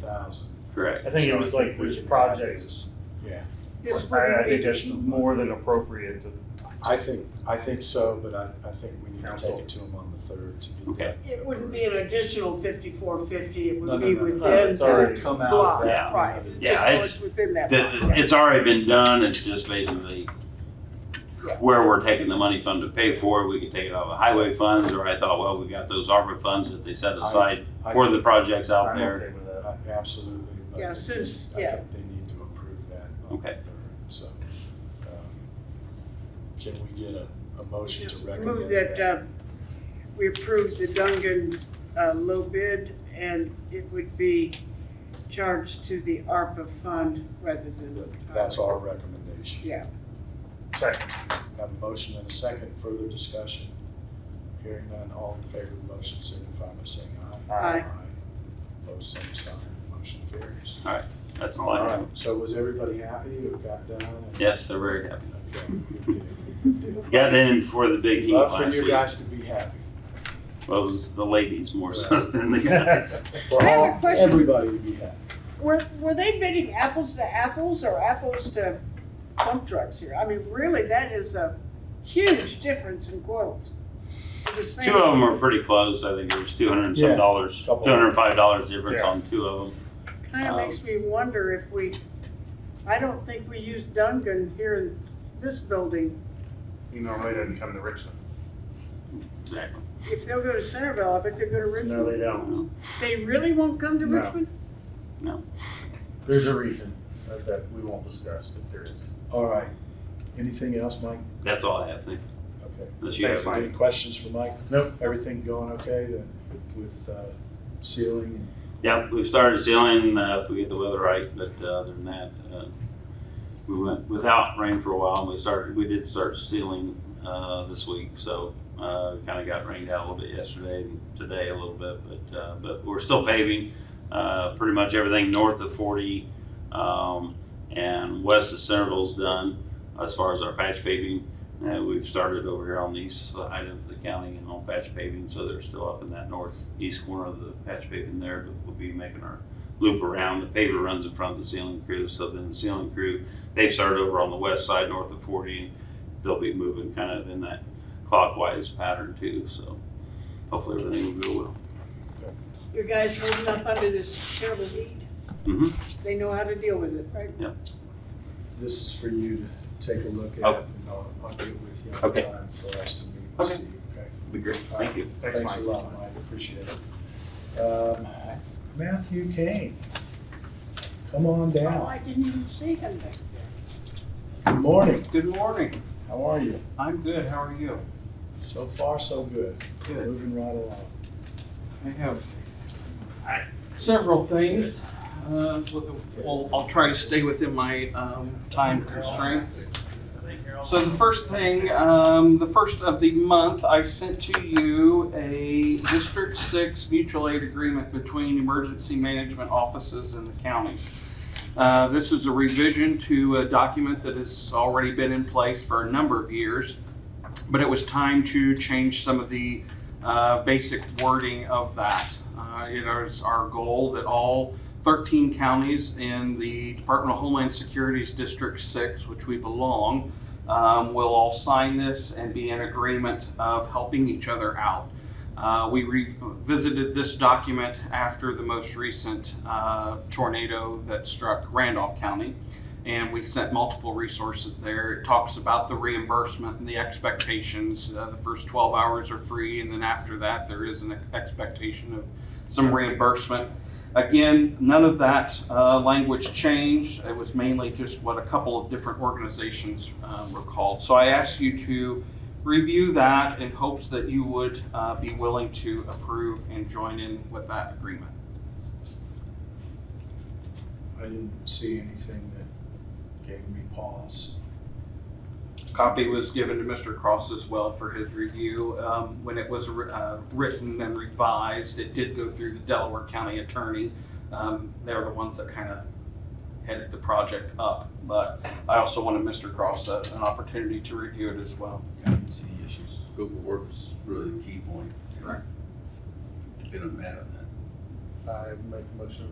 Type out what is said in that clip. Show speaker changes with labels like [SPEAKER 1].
[SPEAKER 1] thousand.
[SPEAKER 2] Correct.
[SPEAKER 3] I think it was like which projects.
[SPEAKER 1] Yeah,
[SPEAKER 4] It's for
[SPEAKER 3] I, I
[SPEAKER 1] uh,
[SPEAKER 4] the-
[SPEAKER 3] think that's more than appropriate to,
[SPEAKER 1] I think, I think so, but I, I think we need to
[SPEAKER 3] Council.
[SPEAKER 1] take it to them on the third to do
[SPEAKER 2] Okay.
[SPEAKER 1] that.
[SPEAKER 4] It wouldn't be an additional fifty-four fifty, it
[SPEAKER 1] No,
[SPEAKER 4] would
[SPEAKER 1] no,
[SPEAKER 4] be
[SPEAKER 1] no, no.
[SPEAKER 4] within
[SPEAKER 3] It's
[SPEAKER 4] the
[SPEAKER 3] already-
[SPEAKER 1] It'll come out
[SPEAKER 4] block,
[SPEAKER 1] of that.
[SPEAKER 4] right.
[SPEAKER 2] Yeah,
[SPEAKER 4] Just
[SPEAKER 2] it's-
[SPEAKER 4] what's Within that
[SPEAKER 2] That,
[SPEAKER 4] block, right.
[SPEAKER 2] it's already been done, it's just basically where we're taking the money from to pay for it, we could take it out of highway funds, or I thought, well, we got those ARPA funds that they set aside
[SPEAKER 1] I
[SPEAKER 2] for the
[SPEAKER 1] think-
[SPEAKER 2] projects out
[SPEAKER 3] I'm
[SPEAKER 2] there.
[SPEAKER 3] okay with that.
[SPEAKER 1] I- Absolutely. but
[SPEAKER 4] Yeah,
[SPEAKER 1] I think-
[SPEAKER 4] since-
[SPEAKER 1] I
[SPEAKER 4] yeah.
[SPEAKER 1] think they need to approve that on the
[SPEAKER 2] Okay.
[SPEAKER 1] third, so. um, Can we get a, a motion to recommend?
[SPEAKER 4] Move that, uh, we approve the Dungan, uh, low bid, and it would be charged to the ARPA fund rather than.
[SPEAKER 1] That- That's our recommendation.
[SPEAKER 4] Yeah,
[SPEAKER 3] Second,
[SPEAKER 1] Have a motion and a second, further discussion. Hearing none, all in favor of the motion signify by saying aye.
[SPEAKER 4] Aye.
[SPEAKER 1] Opposed, same sign, motion carries.
[SPEAKER 2] That's all
[SPEAKER 1] All
[SPEAKER 2] I
[SPEAKER 1] right,
[SPEAKER 2] have.
[SPEAKER 1] so was everybody happy who got done? and-
[SPEAKER 2] Yes, they're very happy.
[SPEAKER 1] Okay, good deal, good deal.
[SPEAKER 2] Got in for the big heat
[SPEAKER 1] Love for
[SPEAKER 2] last
[SPEAKER 1] you
[SPEAKER 2] week.
[SPEAKER 1] guys to be happy.
[SPEAKER 2] Well, it was the ladies more so than the guys.
[SPEAKER 1] For
[SPEAKER 4] I have a
[SPEAKER 1] all,
[SPEAKER 4] question.
[SPEAKER 1] everybody to be happy.
[SPEAKER 4] were, were they bidding apples to apples or apples to dump trucks here? I mean, really, that is a huge difference in quotes. For the same-
[SPEAKER 2] Two of them were pretty close, I think there was two hundred and
[SPEAKER 1] Yeah,
[SPEAKER 2] some dollars, two
[SPEAKER 1] couple.
[SPEAKER 2] hundred and five dollars difference
[SPEAKER 3] Yeah.
[SPEAKER 2] on two of them.
[SPEAKER 4] Kind of
[SPEAKER 2] Um,
[SPEAKER 4] makes me wonder if we, I don't think we use Dungan here in this building.
[SPEAKER 3] he normally doesn't come to Richmond.
[SPEAKER 2] Exactly.
[SPEAKER 4] If they'll go to Centerville, I bet they'll go to
[SPEAKER 3] No, they
[SPEAKER 4] Richmond.
[SPEAKER 3] don't.
[SPEAKER 4] They really won't come to
[SPEAKER 3] No.
[SPEAKER 4] Richmond?
[SPEAKER 3] There's a reason that- that we won't discuss, but there is.
[SPEAKER 1] All right, anything else, Mike?
[SPEAKER 2] That's all I have, thank you.
[SPEAKER 1] Okay.
[SPEAKER 2] Unless you
[SPEAKER 3] Thanks,
[SPEAKER 2] have
[SPEAKER 3] Mike.
[SPEAKER 1] Any questions for Mike?
[SPEAKER 3] Nope.
[SPEAKER 1] Everything going okay the- with uh, sealing and
[SPEAKER 2] Yep, we've started sealing, uh, if we get the weather right, but, uh, other than that, uh, we went without rain for a while, and we started, we did start sealing, uh, this week, so, uh, kinda got rained out a little bit yesterday, and today a little bit, but, uh, but we're still paving, uh, pretty much everything north of forty, um, and west of Centerville's done, as far as our patch paving. Uh, we've started over here on the east side of the county and on patch paving, so they're still up in that northeast corner of the patch paving there, but we'll be making our loop around. The paver runs in front of the sealing crew, so then the sealing crew, they've started over on the west side north of forty, and they'll be moving kind of in that clockwise pattern too, so hopefully everything will go well.
[SPEAKER 4] Your guys holding up under this terrible heat,
[SPEAKER 2] hmm
[SPEAKER 4] they know how to deal with it, right?
[SPEAKER 1] this is for you to take a look at.
[SPEAKER 2] Okay.
[SPEAKER 1] And I'll, I'll get with you
[SPEAKER 2] Okay.
[SPEAKER 1] on time for us to meet with
[SPEAKER 2] Okay.
[SPEAKER 1] Steve, okay?
[SPEAKER 2] Be great, thank you.
[SPEAKER 1] Thanks a
[SPEAKER 3] Mike.
[SPEAKER 1] lot, Mike, appreciate it. Um, Matthew Kane, come on
[SPEAKER 4] Oh,
[SPEAKER 1] down.
[SPEAKER 4] I didn't even see him back there.
[SPEAKER 1] Good morning,
[SPEAKER 5] Good morning.
[SPEAKER 1] how are you?
[SPEAKER 5] I'm good. How are you?
[SPEAKER 1] So far, so good.
[SPEAKER 5] Good.
[SPEAKER 1] Moving right along.
[SPEAKER 5] I have several things. uh, with the- Well, I'll try to stay within my um, time constraints. So the first thing, um, the first of the month, I sent to you a District Six mutual aid agreement between emergency management offices and the counties. Uh, This is a revision to a document that has already been in place for a number of years, but it was time to change some of the uh, basic wording of that. Uh, It is our goal that all 13 counties in the Department of Homeland Security's District 6, which we belong, um, will all sign this and be in agreement of helping each other out. Uh, We revisited this document after the most recent uh, tornado that struck Randolph County, and we sent multiple resources there. It talks about the reimbursement and the expectations. Uh, The first 12 hours are free, and then after that, there is an expectation of some reimbursement. Again, none of that uh, language changed. It was mainly just what a couple of different organizations um, were called. So I asked you to review that in hopes that you would uh, be willing to approve and join in with that agreement.
[SPEAKER 1] I didn't see anything that gave me pause.
[SPEAKER 5] Copy was given to Mr. Cross as well for his review. Um, When it was uh, written and revised, it did go through the Delaware County Attorney. Um, They're the ones that kind of headed the project up, but I also wanted Mr. Cross a- an opportunity to review it as well.
[SPEAKER 6] I didn't see any issues. Scope of work was really the key point.
[SPEAKER 5] Correct.
[SPEAKER 6] Been a man on that.
[SPEAKER 3] I make a motion